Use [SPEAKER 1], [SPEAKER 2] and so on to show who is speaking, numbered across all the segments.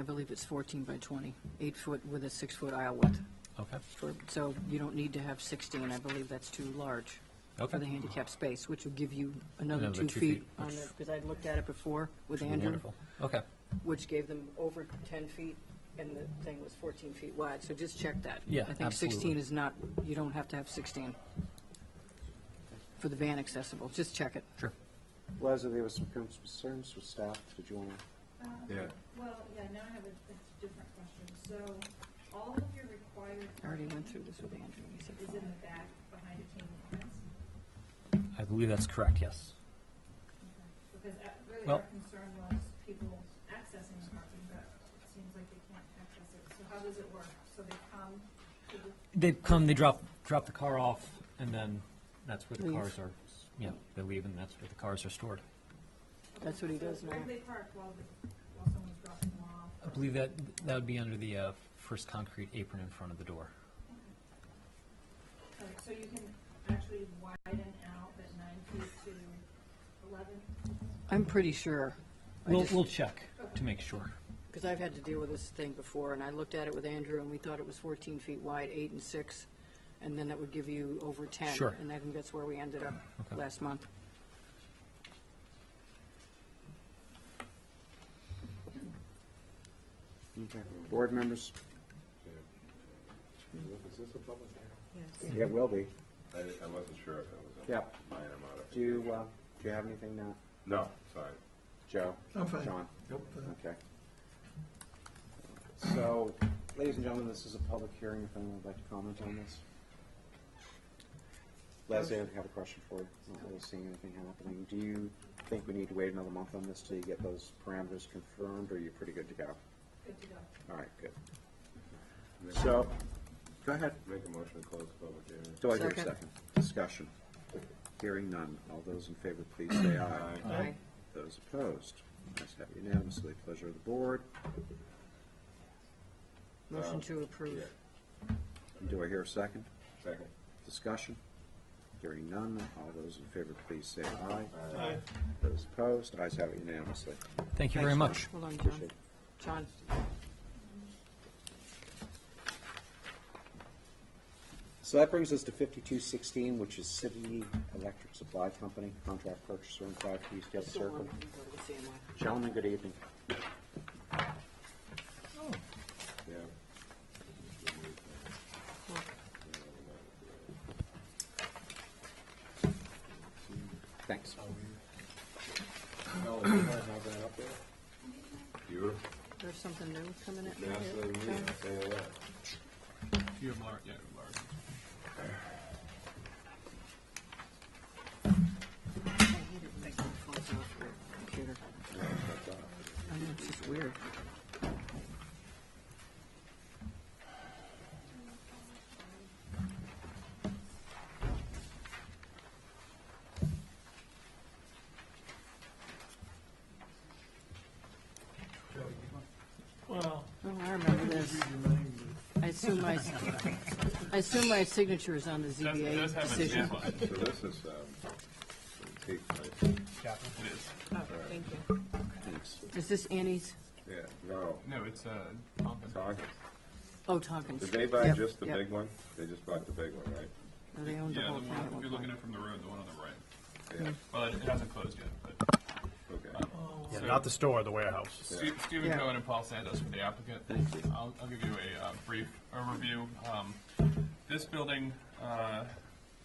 [SPEAKER 1] I believe it's 14 by 20, eight foot with a six-foot aisle width.
[SPEAKER 2] Okay,
[SPEAKER 1] for- So you don't need to have 16, I believe that's too large for the
[SPEAKER 2] okay.
[SPEAKER 1] handicap space, which will give you another
[SPEAKER 2] Another
[SPEAKER 1] two
[SPEAKER 2] two
[SPEAKER 1] feet
[SPEAKER 2] feet,
[SPEAKER 1] on
[SPEAKER 2] which-
[SPEAKER 1] it, because I looked at it before with Andrew,
[SPEAKER 2] Wonderful. Okay,
[SPEAKER 1] which gave them over 10 feet, and the thing was 14 feet wide, so just check that.
[SPEAKER 2] Yeah,
[SPEAKER 1] I think 16
[SPEAKER 2] absolutely.
[SPEAKER 1] is not, you don't have to have 16 for the van accessible, just check it.
[SPEAKER 2] sure.
[SPEAKER 3] Leslie, there was some concerns with staff. Did you want to?
[SPEAKER 4] Yeah. Um, Well, yeah, now I have a, a different question. So all of your required
[SPEAKER 1] I already
[SPEAKER 4] parking
[SPEAKER 1] went through this with Andrew, he said,
[SPEAKER 4] is in the back behind a chain link fence?
[SPEAKER 2] I believe that's correct, yes.
[SPEAKER 4] Because uh, really
[SPEAKER 2] Well-
[SPEAKER 4] our concern was people accessing the parking, but it seems like they can't access it. So how does it work? So they come to the,
[SPEAKER 2] They come, they drop, drop the car off, and then that's where the
[SPEAKER 1] Leave.
[SPEAKER 2] cars are, yeah, they leave, and that's where the cars are stored.
[SPEAKER 1] That's what he does
[SPEAKER 4] so where
[SPEAKER 1] now.
[SPEAKER 4] do they park while, the- while someone's dropping them off?
[SPEAKER 2] I believe that, that would be under the uh, first concrete apron in front of the door.
[SPEAKER 4] Okay, So you can actually widen out that nine feet to eleven?
[SPEAKER 1] I'm pretty sure. I
[SPEAKER 2] We'll,
[SPEAKER 1] just-
[SPEAKER 2] we'll check to make sure.
[SPEAKER 1] Because I've had to deal with this thing before, and I looked at it with Andrew, and we thought it was 14 feet wide, eight and six, and then that would give you over 10.
[SPEAKER 2] Sure.
[SPEAKER 1] And I think that's where we ended up
[SPEAKER 2] Okay.
[SPEAKER 1] last month.
[SPEAKER 3] Okay. Board members? Yeah, it will be.
[SPEAKER 5] I, I wasn't sure if it was a
[SPEAKER 3] Yep.
[SPEAKER 5] minor modification.
[SPEAKER 3] Do you, uh, do you have anything now?
[SPEAKER 5] No, sorry.
[SPEAKER 3] Joe?
[SPEAKER 6] I'm fine.
[SPEAKER 3] John?
[SPEAKER 6] Nope. uh,
[SPEAKER 3] Okay. So, ladies and gentlemen, this is a public hearing. If anyone would like to comment on this? Leslie, I have a question for you. I'm Not really seeing anything happening. Do you think we need to wait another month on this till you get those parameters confirmed, or are you pretty good to go?
[SPEAKER 4] Good to go.
[SPEAKER 3] All right, good. So, go ahead.
[SPEAKER 5] Make a motion to close the public hearing.
[SPEAKER 3] Do I hear a
[SPEAKER 1] Second.
[SPEAKER 3] second? Discussion. Hearing none. All those in favor, please say aye.
[SPEAKER 1] Aye.
[SPEAKER 3] Those opposed? Ayes have it unanimously. Pleasure of the board.
[SPEAKER 1] Motion to approve.
[SPEAKER 3] Do I hear a second?
[SPEAKER 5] Second.
[SPEAKER 3] Discussion. Hearing none. All those in favor, please say aye. Aye. Those opposed? Ayes have it unanimously.
[SPEAKER 2] Thank you very much.
[SPEAKER 1] Hold on, John. John,
[SPEAKER 3] So that brings us to fifty-two sixteen, which is City Electric Supply Company, contract purchaser in five Eastgate
[SPEAKER 1] still
[SPEAKER 3] Circle.
[SPEAKER 1] on, you go to the same one.
[SPEAKER 3] Gentlemen, good evening.
[SPEAKER 5] Yeah.
[SPEAKER 3] Thanks.
[SPEAKER 5] Oh, you guys have that up there? Beautiful.
[SPEAKER 1] There's something new coming in?
[SPEAKER 5] Now, so
[SPEAKER 1] here,
[SPEAKER 5] we
[SPEAKER 1] John?
[SPEAKER 5] can say that.
[SPEAKER 7] You have large, yeah, large.
[SPEAKER 1] I hate it when it falls off your computer. I know, it's just weird.
[SPEAKER 6] Well,
[SPEAKER 1] Oh, I remember
[SPEAKER 6] this
[SPEAKER 1] this.
[SPEAKER 6] is your name, but-
[SPEAKER 1] I assume my, I assume my signature is on the
[SPEAKER 7] Does, does
[SPEAKER 1] ZBA
[SPEAKER 7] have an
[SPEAKER 1] decision.
[SPEAKER 7] outline.
[SPEAKER 5] So this is, um, take place.
[SPEAKER 7] It is.
[SPEAKER 1] Oh, Thank you.
[SPEAKER 3] Thanks.
[SPEAKER 1] Is this Annie's?
[SPEAKER 5] Yeah, no.
[SPEAKER 7] No, it's, uh,
[SPEAKER 5] It's August.
[SPEAKER 1] Oh, Tompkins.
[SPEAKER 5] Did they buy
[SPEAKER 1] Yep,
[SPEAKER 5] just the
[SPEAKER 1] yep.
[SPEAKER 5] big one? They just bought the big one, right?
[SPEAKER 1] No, They owned the
[SPEAKER 7] yeah, the
[SPEAKER 1] whole thing.
[SPEAKER 7] one,
[SPEAKER 1] at
[SPEAKER 7] if
[SPEAKER 1] one
[SPEAKER 7] you're looking
[SPEAKER 1] point.
[SPEAKER 7] at it from the road, the one on the right.
[SPEAKER 5] Yeah,
[SPEAKER 7] Well, it, it hasn't closed yet, but.
[SPEAKER 5] okay.
[SPEAKER 7] so,
[SPEAKER 8] Not the store, the warehouse.
[SPEAKER 7] Ste- Stephen
[SPEAKER 1] Yeah.
[SPEAKER 7] Cohen and Paul Santos for the applicant. I'll, I'll give you a uh, brief overview. Um, This building uh,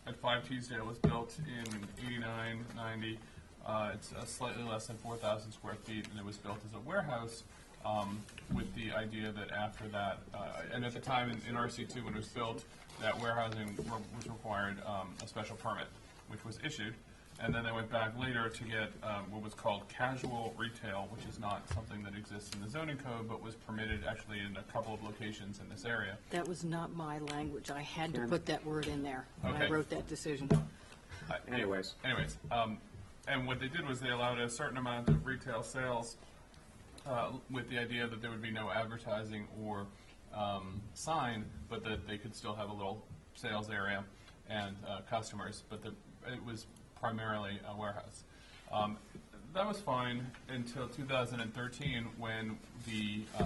[SPEAKER 7] at 5 Teasdale was built in 89, 90. Uh, It's uh, slightly less than 4,000 square feet, and it was built as a warehouse um, with the idea that after that, uh, and at the time in- in RC2 when it was built, that warehousing re- was required um, a special permit, which was issued. And then I went back later to get um, what was called casual retail, which is not something that exists in the zoning code, but was permitted actually in a couple of locations in this area.
[SPEAKER 1] That was not my language. I had to
[SPEAKER 3] Karen?
[SPEAKER 1] put that word in there when I
[SPEAKER 7] Okay.
[SPEAKER 1] wrote that decision.
[SPEAKER 7] I-
[SPEAKER 3] Anyways.
[SPEAKER 7] Anyways, um, and what they did was they allowed a certain amount of retail sales uh, with the idea that there would be no advertising or um, sign, but that they could still have a little sales area and uh, customers, but the, it was primarily a warehouse. Um, That was fine until 2013, when the uh,